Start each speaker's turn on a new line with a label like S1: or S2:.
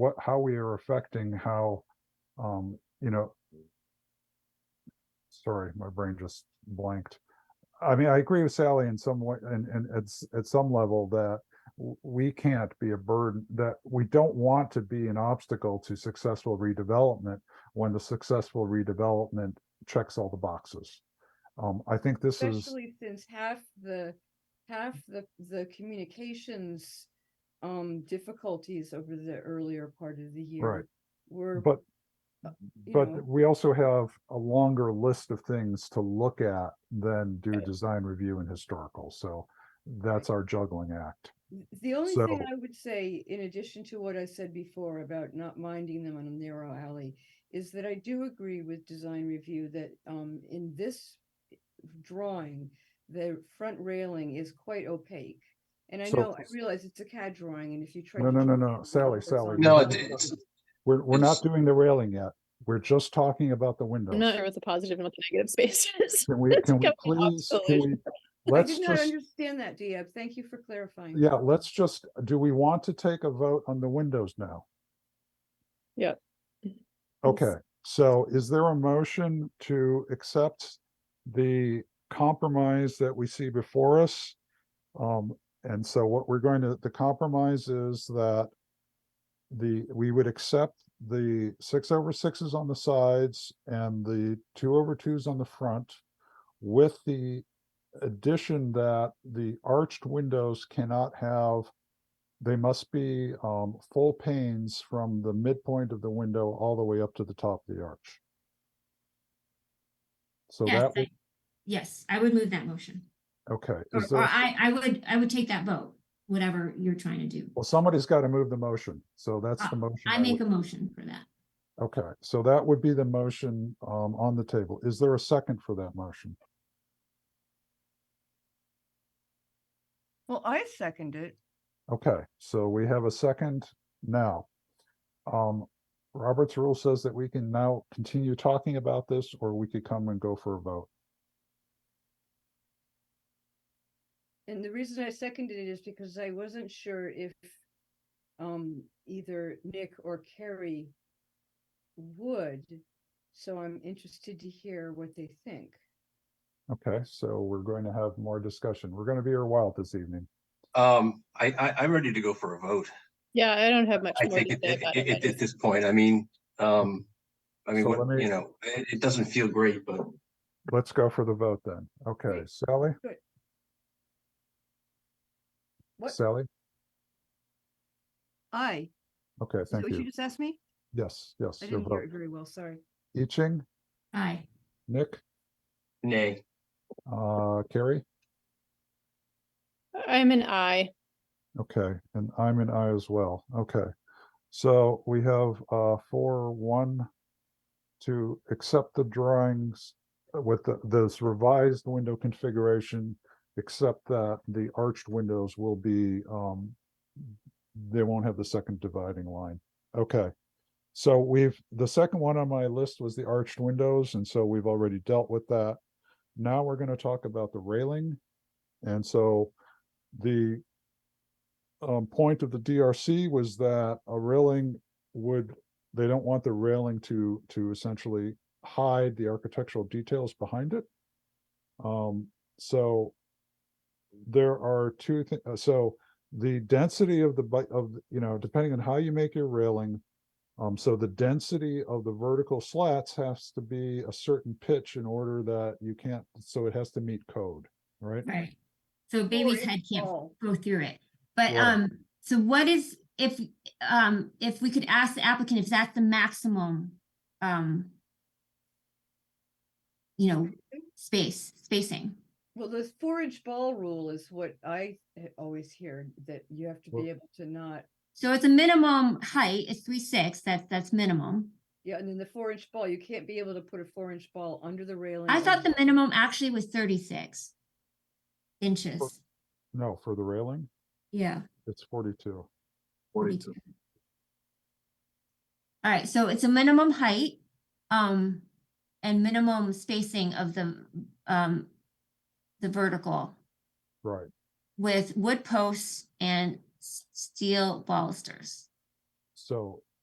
S1: what, how we are affecting how, um, you know, sorry, my brain just blanked. I mean, I agree with Sally in some way, and, and it's, at some level that w- we can't be a burden, that we don't want to be an obstacle to successful redevelopment when the successful redevelopment checks all the boxes. Um, I think this is,
S2: Especially since half the, half the, the communications um difficulties over the earlier part of the year were,
S1: but
S2: you know,
S1: But we also have a longer list of things to look at than do design review and historical, so that's our juggling act.
S2: th- the only thing
S1: so-
S2: I would say, in addition to what I said before about not minding them on a narrow alley, is that I do agree with design review that um in this drawing, the front railing is quite opaque. And I
S1: So-
S2: know, I realize it's a CAD drawing and if you try.
S1: No,
S2: to
S1: no, no,
S2: draw
S1: no,
S2: it
S1: Sally,
S2: with
S1: Sally,
S2: horizontal
S3: No,
S1: Yeah.
S3: it-
S2: lines,
S3: it's,
S1: We're, we're not
S3: It's-
S1: doing the railing yet, we're just talking about the
S4: I'm not
S1: windows.
S4: sure what the positive and what the negative space is.
S1: Can we,
S4: It's
S1: can we
S4: coming off
S1: please, can
S4: collision.
S1: we,
S2: I
S1: let's
S2: did not
S1: just,
S2: understand that, Diab. Thank you for clarifying.
S1: yeah, let's just, do we want to take a vote on the windows now?
S4: Yeah.
S1: Okay, so is there a motion to accept the compromise that we see before us? Um, and so what we're going to, the compromise is that the, we would accept the six over sixes on the sides and the two over twos on the front with the addition that the arched windows cannot have they must be um, full panes from the midpoint of the window all the way up to the top of the arch. So
S5: Yes,
S1: that, would-
S5: I- yes, I would move that motion.
S1: okay,
S5: Or,
S1: is
S5: or
S1: there,
S5: I, I would, I would take that vote, whatever you're trying to do.
S1: well, somebody's got to move the motion, so that's the motion.
S5: Uh, I
S1: would-
S5: make a motion for that.
S1: Okay, so that would be the motion um, on the table. Is there a second for that motion?
S2: Well, I second it.
S1: Okay, so we have a second now. Um, Robert's rule says that we can now continue talking about this, or we could come and go for a vote.
S2: And the reason I seconded it is because I wasn't sure if um either Nick or Carrie would. So I'm interested to hear what they think.
S1: Okay, so we're going to have more discussion. We're going to be here a while this evening.
S3: um, I, I, I'm ready to go for a vote.
S4: Yeah, I don't have much
S3: I
S4: more
S3: think
S4: to
S3: at,
S4: say
S3: at,
S4: about it.
S3: at-
S4: I
S3: at
S4: just-
S3: this point, I mean, um, I mean,
S1: So let
S3: what,
S1: me-
S3: you know, it, it doesn't feel great, but
S1: Let's go for the vote then. Okay,
S2: Great.
S1: Sally,
S2: What?
S1: Sally?
S2: Aye.
S1: Okay,
S2: Is that
S1: thank
S2: what you
S1: you.
S2: just asked me?
S1: Yes, yes,
S2: I
S1: your
S2: didn't hear
S1: vote.
S2: it very well, sorry.
S1: I Ching,
S5: Aye,
S1: Nick,
S3: nay.
S1: uh, Carrie?
S4: I'm an I.
S1: Okay, and I'm an I as well. Okay. So we have uh four, one to accept the drawings uh, with the- this revised window configuration, except that the arched windows will be um they won't have the second dividing line. Okay. So we've the second one on my list was the arched windows, and so we've already dealt with that. Now we're going to talk about the railing. And so the um, point of the DRC was that a railing would, they don't want the railing to, to essentially hide the architectural details behind it. Um, so there are two, thi- uh, so the density of the, bi- of, the- you know, depending on how you make your railing, um, so the density of the vertical slats has to be a certain pitch in order that you can't, so it has to meet code, right?
S5: right. So
S2: Or
S5: baby's
S2: if
S5: head can't
S2: all.
S5: go through it. But,
S1: Right.
S5: um, so what is, if, um, if we could ask the applicant if that's the maximum, um, you know, space, spacing.
S2: Well, the four-inch ball rule is what I eh, always hear, that you have to
S1: Well-
S2: be able to not,
S5: So it's a minimum height, it's three six, that's, that's minimum.
S2: yeah, and then the four-inch ball, you can't be able to put a four-inch ball under the railing.
S5: I
S2: or
S5: thought the
S2: above.
S5: minimum actually was thirty-six inches.
S1: No, for the railing,
S5: Yeah.
S1: it's forty-two.
S5: 42. All right, so it's a minimum height, um, and minimum spacing of the, um, the vertical
S1: Right,
S5: with wood posts and s- steel balusters.
S1: so